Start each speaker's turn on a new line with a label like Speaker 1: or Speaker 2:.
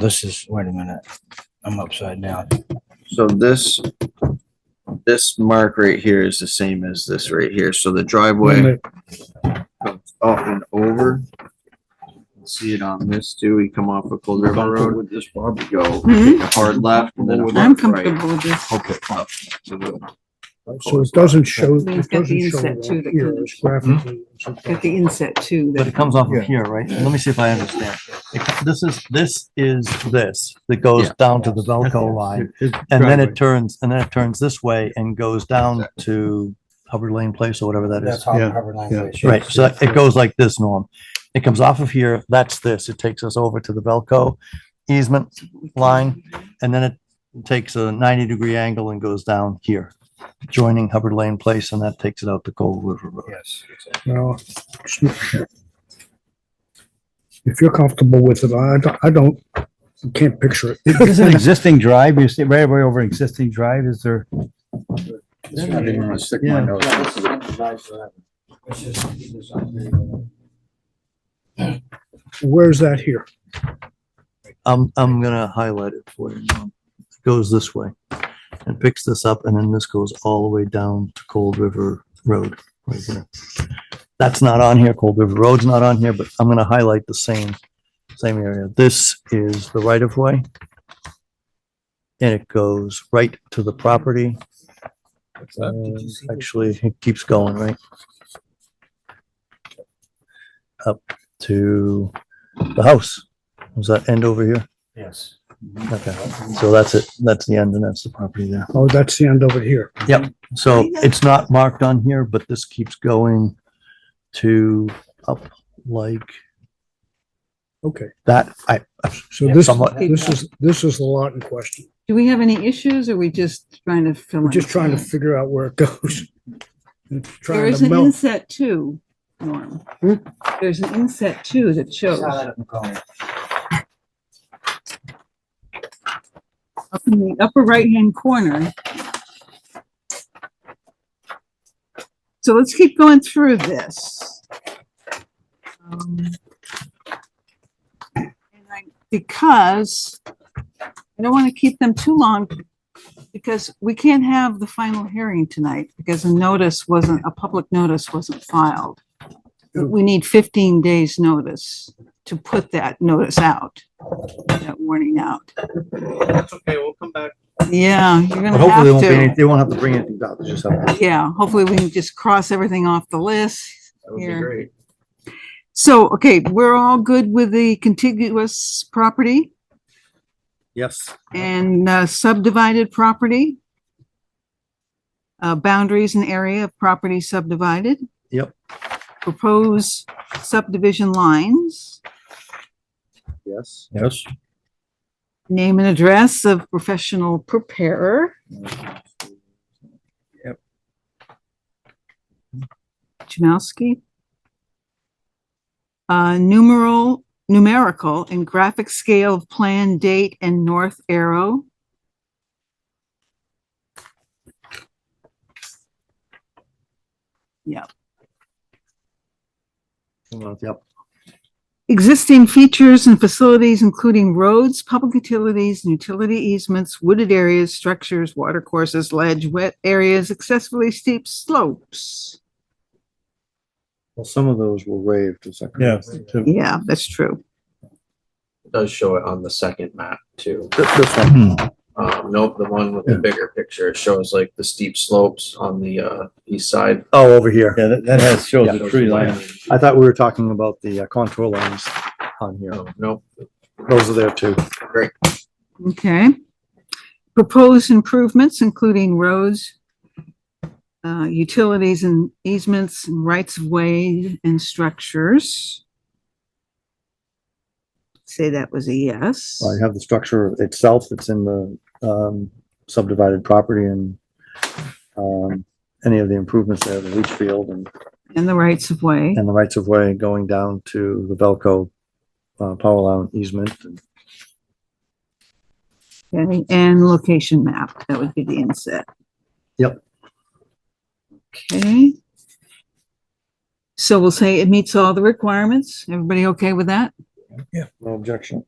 Speaker 1: This is, wait a minute, I'm upside down.
Speaker 2: So this, this mark right here is the same as this right here, so the driveway comes up and over. See it on this too, we come off of Cold River Road. With this Bob. Go,
Speaker 3: Mhm.
Speaker 2: take a hard left and then a
Speaker 3: I'm
Speaker 2: hard right.
Speaker 3: comfortable with this.
Speaker 2: Okay. up to the-
Speaker 4: So it doesn't show,
Speaker 3: But it's
Speaker 4: it
Speaker 3: got
Speaker 4: doesn't
Speaker 3: the
Speaker 4: show
Speaker 3: inset too
Speaker 4: that
Speaker 3: that
Speaker 4: here,
Speaker 3: comes-
Speaker 4: it's
Speaker 5: Hmm?
Speaker 4: graphically. it's
Speaker 3: Got the inset too.
Speaker 5: But it
Speaker 3: That,
Speaker 5: comes off
Speaker 4: Yeah.
Speaker 5: of here, right? Let me see if I understand. It- This is, this is this that goes down to the Velco line. And then it turns, and then it turns this way and goes down to Hubbard Lane Place or whatever that
Speaker 1: That's
Speaker 5: is.
Speaker 1: how
Speaker 4: Yeah,
Speaker 1: Harvard
Speaker 4: yeah.
Speaker 1: language.
Speaker 5: Right, so it goes like this, Norm. It comes off of here, that's this. It takes us over to the Velco easement line. And then it takes a ninety degree angle and goes down here, joining Hubbard Lane Place, and that takes it out to Cold River Road.
Speaker 1: Yes.
Speaker 4: Well, it's not sure. If you're comfortable with it, I don't, I don't, I can't picture it.
Speaker 6: Is an existing drive, you see, right away over an existing drive, is there,
Speaker 2: It's not even gonna stick my
Speaker 6: Yeah.
Speaker 2: nose.
Speaker 4: Where's that here?
Speaker 5: I'm, I'm gonna highlight it for you. Norm. It Goes this way and picks this up and then this goes all the way down to Cold River Road right there. That's not on here. Cold River Road's not on here, but I'm gonna highlight the same, same area. This is the right of way. And it goes right to the property. And Actually, it keeps going, right? Up to the house. Does that end over here?
Speaker 1: Yes.
Speaker 5: Okay, so that's it. That's the end and that's the property there.
Speaker 4: Oh, that's the end over here.
Speaker 5: So it's not marked on here, but this keeps going to up like
Speaker 4: Okay,
Speaker 5: that. I,
Speaker 4: so
Speaker 5: Yeah,
Speaker 4: this,
Speaker 5: somewhat.
Speaker 4: this is, this is the lot in question.
Speaker 3: do we have any issues or we just trying to fill in?
Speaker 4: We're just trying to figure out where it goes. It's
Speaker 3: There
Speaker 4: Trying
Speaker 3: is
Speaker 4: to
Speaker 3: an
Speaker 4: melt.
Speaker 3: inset too, Norm.
Speaker 4: Hmm?
Speaker 3: There's an inset too that shows up
Speaker 1: Well,
Speaker 3: in the upper right-hand corner. So let's keep going through this. Um, and I- Because I don't want to keep them too long because we can't have the final hearing tonight because a notice wasn't, a public notice wasn't filed. We need fifteen days' notice to put that notice out, that warning out. That's okay, we'll come back. Yeah, you're
Speaker 5: but
Speaker 3: gonna
Speaker 5: hopefully they won't be, any-
Speaker 3: have
Speaker 5: they won't have to bring anything out. They just have to
Speaker 3: to. Yeah, hopefully we can just cross everything off the list.
Speaker 2: That would be
Speaker 3: Here.
Speaker 2: great.
Speaker 3: So, okay, we're all good with the contiguous property
Speaker 5: Yes.
Speaker 3: and uh, subdivided property? Uh, boundaries and area of property subdivided?
Speaker 5: Yep.
Speaker 3: Propose subdivision lines,
Speaker 2: Yes.
Speaker 5: Yes.
Speaker 3: name and address of professional preparer Jamowski. Uh, numeral, numerical and graphic scale of plan, date, and north arrow.
Speaker 5: Yep.
Speaker 3: Existing features and facilities, including roads, public utilities, and utility easements, wooded areas, structures, water courses, ledge, wet areas, excessively steep slopes.
Speaker 5: Well, some of those were waived. is that correct?
Speaker 6: yeah.
Speaker 3: Yeah, that's true.
Speaker 2: It Does show it on the second map too.
Speaker 5: Th- This one.
Speaker 6: Hmm.
Speaker 2: Um, nope, the one with the bigger picture, it shows like the steep slopes on the, uh, east side.
Speaker 5: Oh, over here.
Speaker 6: Yeah, that, that has, shows the tree line.
Speaker 5: I thought we were talking about the uh, contour lines on here.
Speaker 2: No, Nope,
Speaker 5: Those are there too.
Speaker 3: Okay. Proposed improvements, including roads, uh, utilities and easements, and rights of way and structures. Say that was a yes.
Speaker 5: I have the structure itself that's in the um, subdivided property and um, any of the improvements there, the leach field and,
Speaker 3: And the rights of way.
Speaker 5: and the rights of way going down to the Velco uh, power line easement. and-
Speaker 3: Okay, and location map, that would be the inset.
Speaker 5: Yep.
Speaker 3: Okay. So we'll say it meets all the requirements. Everybody okay with that?
Speaker 5: No objection.